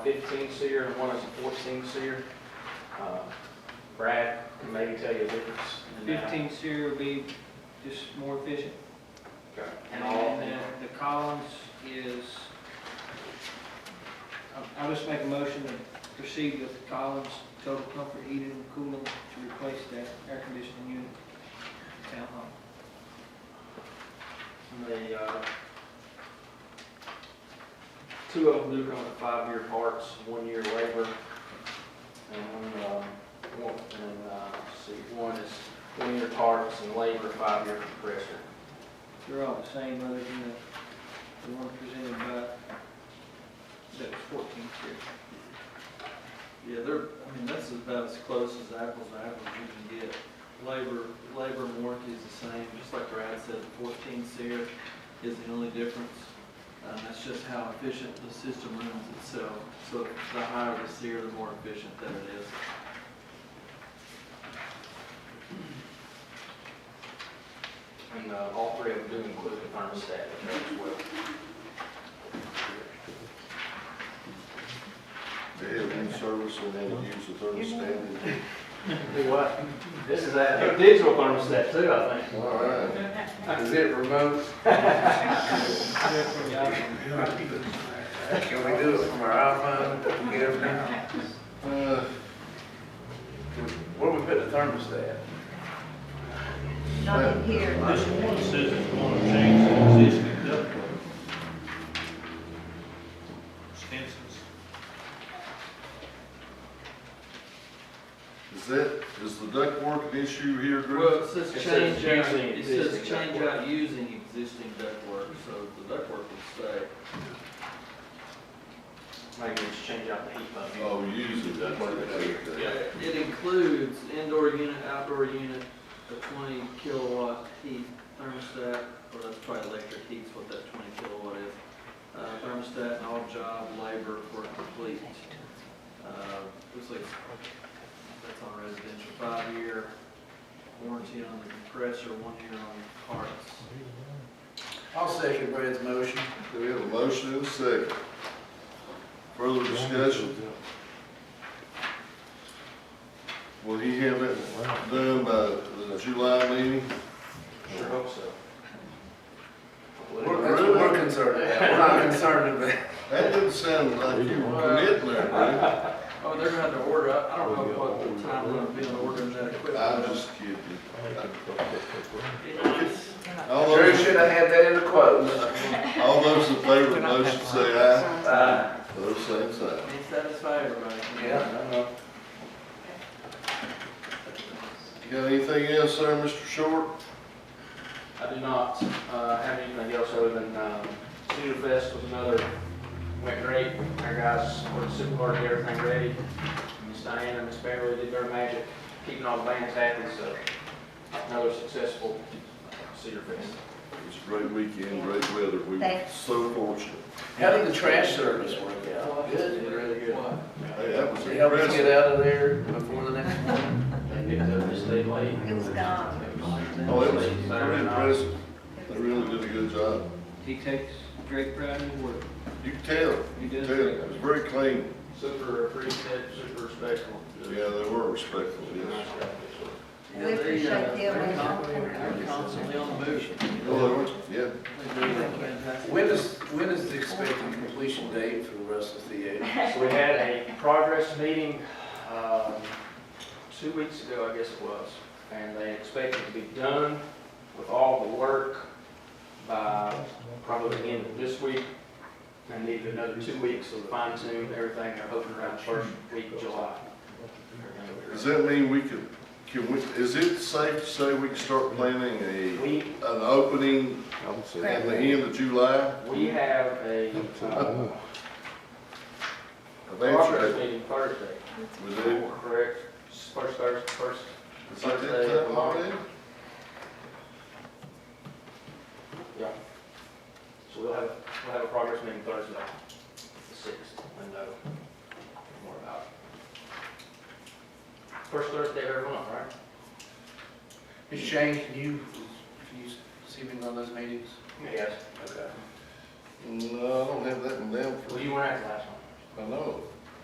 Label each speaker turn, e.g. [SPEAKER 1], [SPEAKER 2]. [SPEAKER 1] fifteen seer and one is a fourteen seer. Uh, Brad can maybe tell you the difference. in that.
[SPEAKER 2] Fifteen seer will be just more efficient.
[SPEAKER 1] Okay.
[SPEAKER 2] And
[SPEAKER 1] All-
[SPEAKER 2] then the the Collins is, I- I'll just make a motion to proceed with the Collins total comfort heating and cooling to replace that air conditioning unit in town hall.
[SPEAKER 1] And The, uh, two of them do come with five-year parts, one-year labor, and one, um, one, and, uh, let's see, one is one-year parts and labor, five-year compressor.
[SPEAKER 2] They're all the same other than the, the one presented by, that was fourteen seer.
[SPEAKER 3] Yeah, they're, I mean, that's about as close as apples to apples you can get. Labor, labor and warranty is the same, just like Brad said, the fourteen SEER is the only difference. Um, that's just how efficient the system runs itself. So the higher the SEER, the more efficient that it is.
[SPEAKER 1] And, uh, all three of them do include the thermostat in there as well.
[SPEAKER 4] They have new service and they use the thermostat.
[SPEAKER 1] Do what? This is a digital thermostat too, I think.
[SPEAKER 4] All right. Is it remote? Can we do it from our iPhone, computer? Uh, Where we put the thermostat?
[SPEAKER 5] Not in here.
[SPEAKER 6] This one says it's gonna change the existing ductwork. Stinson's.
[SPEAKER 4] Is that, is the ductwork an issue here,
[SPEAKER 3] Well,
[SPEAKER 4] Drew?
[SPEAKER 3] it says
[SPEAKER 1] It says
[SPEAKER 3] change out,
[SPEAKER 1] using
[SPEAKER 3] it says
[SPEAKER 1] existing
[SPEAKER 3] change
[SPEAKER 1] ductwork.
[SPEAKER 3] out using existing ductwork, so the ductwork would stay.
[SPEAKER 1] Maybe just change out the heat pump.
[SPEAKER 4] Oh, use the ductwork.
[SPEAKER 3] Yeah, It includes indoor unit, outdoor unit, a twenty kilowatt heat thermostat, or that's probably electric heat's what that twenty kilowatt is. Uh, thermostat and all job labor for complete, uh, looks like that's on residential, five-year warranty on the compressor, one year on parts.
[SPEAKER 7] I'll second Brad's motion.
[SPEAKER 4] Do we have a motion and a second? Further discussion? Will he have it done by the July meeting?
[SPEAKER 1] Sure hope so.
[SPEAKER 7] We're, that's what we're concerned about. We're not concerned about.
[SPEAKER 4] That didn't sound like you were committing there, Brad.
[SPEAKER 3] Oh, they're gonna have to order, I I don't know what the time will be on ordering that equipment.
[SPEAKER 4] I'm just kidding.
[SPEAKER 3] It's-
[SPEAKER 4] All
[SPEAKER 7] Drew
[SPEAKER 4] those,
[SPEAKER 7] should have had that in the quotes.
[SPEAKER 4] all those in favor of the motion say aye.
[SPEAKER 7] Uh,
[SPEAKER 4] Those same side.
[SPEAKER 3] It satisfies everybody.
[SPEAKER 7] Yeah, I know.
[SPEAKER 4] Got anything else, sir, Mr. Short?
[SPEAKER 1] I do not uh, have anything else other than um, Cedar Fest was another, went great. Our guys worked super hard, to get everything ready. Miss Diana and Miss Beverly did their magic, keeping all the bands happy, so another successful Cedar Fest.
[SPEAKER 4] It was a great weekend, great weather. We were
[SPEAKER 5] Thanks.
[SPEAKER 4] so fortunate.
[SPEAKER 7] How did the trash service work out?
[SPEAKER 1] It was Really good.
[SPEAKER 4] Hey, that was
[SPEAKER 7] Did it help us get
[SPEAKER 4] impressive.
[SPEAKER 7] out of there before the next one?
[SPEAKER 1] They picked up this day late.
[SPEAKER 5] It was gone.
[SPEAKER 4] Oh, it was pretty impressive. They really did a good job.
[SPEAKER 2] He takes great pride in his work.
[SPEAKER 4] You can tell,
[SPEAKER 2] He
[SPEAKER 4] you
[SPEAKER 2] does
[SPEAKER 4] can tell,
[SPEAKER 2] great.
[SPEAKER 4] it was very clean.
[SPEAKER 1] Super appreciative, super respectful.
[SPEAKER 4] Yeah, they were respectful,
[SPEAKER 1] Really nice
[SPEAKER 4] yes.
[SPEAKER 1] guys.
[SPEAKER 5] We appreciate the
[SPEAKER 3] They're
[SPEAKER 5] amount.
[SPEAKER 3] constantly- They're constantly on the move.
[SPEAKER 4] Oh, they were, yeah.
[SPEAKER 7] When is, when is the expected completion date for the rest of the year?
[SPEAKER 1] So we had a progress meeting, um, two weeks ago, I guess it was, and they expected to be done with all the work by probably the end of this week. And needed another two weeks of fine tune, everything, they're hoping around the first week of July.
[SPEAKER 4] Does that mean we could, can we, is it safe to say we can start planning a,
[SPEAKER 1] We,
[SPEAKER 4] an opening at the end of July?
[SPEAKER 1] we have a, uh, progress
[SPEAKER 4] Eventually,
[SPEAKER 1] meeting Thursday,
[SPEAKER 4] we do.
[SPEAKER 1] correct? First Thursday, first
[SPEAKER 4] Is that that type of holiday?
[SPEAKER 1] Yeah. So we'll have, we'll have a progress meeting Thursday, the sixth, and know more about it. First Thursday of every month, right?
[SPEAKER 7] Ms. Shane, can you, can you see me on those meetings?
[SPEAKER 1] Yes.
[SPEAKER 7] Okay.
[SPEAKER 4] No, I don't have that one down for,
[SPEAKER 1] Well, you weren't at the last one.
[SPEAKER 4] I know.